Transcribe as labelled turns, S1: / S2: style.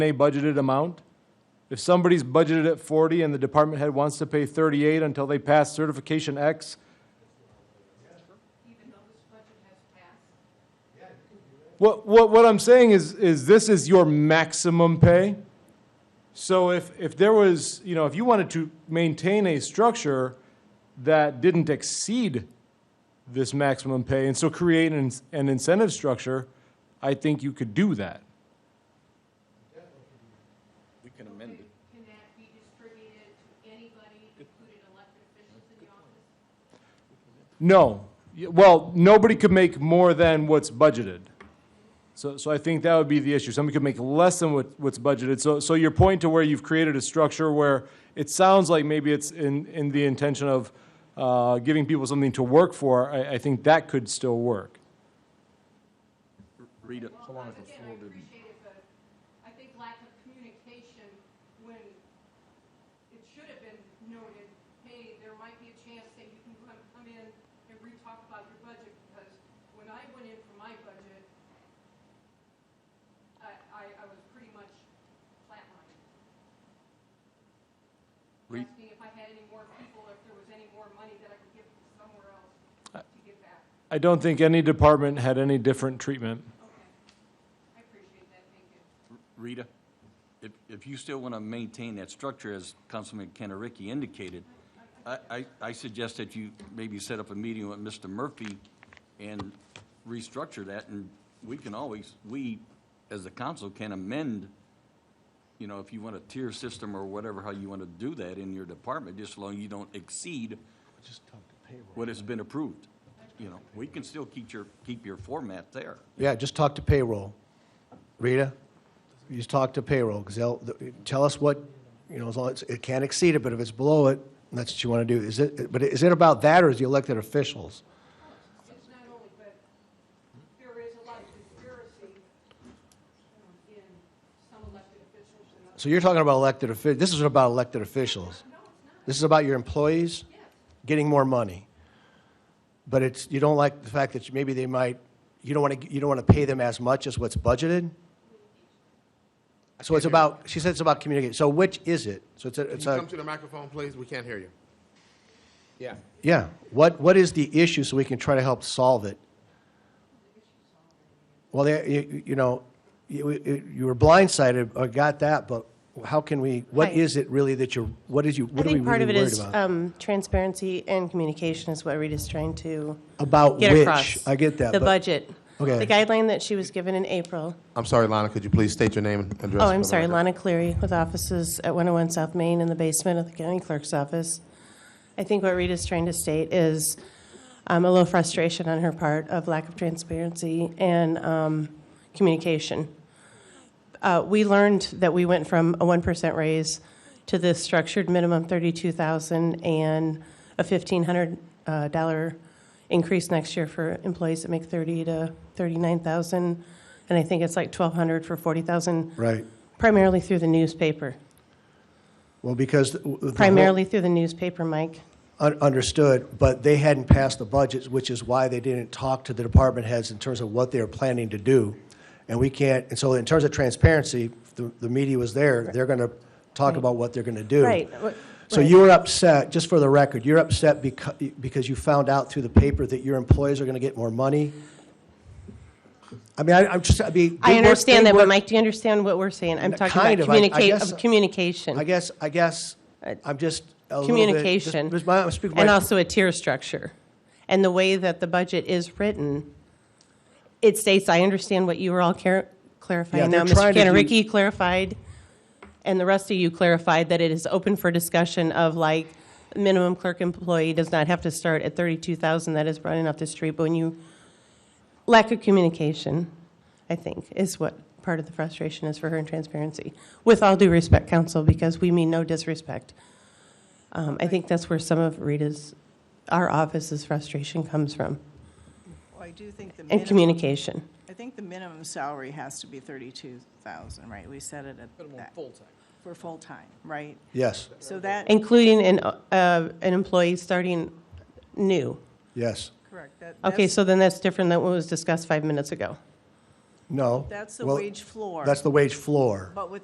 S1: a budgeted amount. If somebody's budgeted at 40 and the department head wants to pay 38 until they pass certification X, What, what, what I'm saying is, is this is your maximum pay. So if, if there was, you know, if you wanted to maintain a structure that didn't exceed this maximum pay and so create an, an incentive structure, I think you could do that.
S2: We can amend it.
S3: Can that be distributed to anybody, including elected officials in the office?
S1: No. Y- Well, nobody could make more than what's budgeted. So, so I think that would be the issue. Somebody could make less than what, what's budgeted. So, so your point to where you've created a structure where it sounds like maybe it's in, in the intention of, uh, giving people something to work for, I, I think that could still work.
S2: Read it.
S3: Well, again, I appreciate it, but I think lack of communication when it should have been noted, hey, there might be a chance that you can come, come in and re-talk about your budget, because when I went in for my budget, I, I, I was pretty much flatlined.
S2: Re-
S3: Asking if I had any more people, if there was any more money that I could give somewhere else to get back.
S1: I don't think any department had any different treatment.
S3: Okay. I appreciate that, thank you.
S2: Rita, if, if you still want to maintain that structure, as Councilman Kennericki indicated, I, I, I suggest that you maybe set up a meeting with Mr. Murphy and restructure that, and we can always, we, as the council, can amend, you know, if you want a tier system or whatever, how you want to do that in your department, just as long as you don't exceed what has been approved. You know, we can still keep your, keep your format there.
S4: Yeah, just talk to payroll. Rita, you just talk to payroll, because they'll, th- tell us what, you know, as long, as- it can't exceed it, but if it's below it, that's what you want to do. Is it, but is it about that, or is the elected officials?
S3: It's not only, but there is a lot of conspiracy um, in some elected officials and others.
S4: So you're talking about elected officials, this isn't about elected officials.
S3: No, it's not,
S4: This is about your employees
S3: yes.
S4: getting more money. But it's, you don't like the fact that maybe they might, you don't want to, you don't want to pay them as much as what's budgeted? So it's about, she said it's about communication. So which is it? So it's a,
S5: Can
S4: it's
S5: you
S4: a.
S5: come to the microphone, please? We can't hear you. Yeah.
S4: Yeah, what, what is the issue so we can try to help solve it? Well, there- you, you know, you, you were blindsided, I got that, but how can we, what
S6: Right.
S4: is it really that you're, what is you,
S6: I
S4: what are we
S6: think part of it
S4: really worried
S6: is
S4: about?
S6: um, transparency and communication is what Rita's trying to
S4: About
S6: uh, get
S4: which,
S6: across.
S4: I get that,
S6: The
S4: but,
S6: budget.
S4: Okay.
S6: The guideline that she was given in April.
S5: I'm sorry, Lana, could you please state your name and address?
S6: Oh,
S5: for
S6: I'm
S5: the
S6: sorry,
S5: record?
S6: Lana Cleary with offices at 101 South Main in the basement of the county clerk's office. I think what Rita's trying to state is um, a little frustration on her part of lack of transparency and um, communication. Uh, We learned that we went from a 1% raise to this structured minimum 32,000 and a $1,500 uh, dollar increase next year for employees that make 30 to 39,000. And I think it's like 1,200 for 40,000
S4: right,
S6: Primarily through the newspaper.
S4: well, because. the- the whole-
S6: Primarily through the newspaper, Mike.
S4: un- Understood, but they hadn't passed the budgets, which is why they didn't talk to the department heads in terms of what they were planning to do. And we can't, and so in terms of transparency, the, the media was there, they're gonna talk about what they're gonna do.
S6: Right.
S4: So you were upset, just for the record, you're upset because, because you found out through the paper that your employees are gonna get more money? I mean, I, I'm just, I mean.
S6: I
S4: they work-
S6: understand
S4: they
S6: that, but
S4: work-
S6: Mike, do you understand what we're saying? I'm talking
S4: Kind
S6: about
S4: of, I- I
S6: communica-
S4: guess-
S6: of communication.
S4: I guess, I guess, I'm just a little bit.
S6: Communication.
S4: just- I'm speaking my-
S6: And also a tier structure. And the way that the budget is written, it states, I understand what you were all clar-
S4: Yeah,
S6: clarifying
S4: they're
S6: now.
S4: trying
S6: Mr.
S4: to do-
S6: Cantoricchi clarified, and the rest of you clarified that it is open for discussion of like, minimum clerk employee does not have to start at 32,000, that is running off the street, but when you, lack of communication, I think, is what part of the frustration is for her and transparency. With all due respect, counsel, because we mean no disrespect. Um, I think that's where some of Rita's, our office's frustration comes from,
S7: Well, I do think the
S6: and
S7: minimum,
S6: communication.
S7: I think the minimum salary has to be 32,000, right? We set it at that. full-time. For full-time, right?
S4: Yes,
S7: So that,
S6: Including an, uh, an employee starting new.
S4: yes.
S7: correct. that-
S6: Okay,
S7: that's-
S6: so then that's different than what was discussed five minutes ago.
S4: No.
S7: That's the
S4: Well,
S7: wage floor.
S4: That's the wage floor.
S7: But with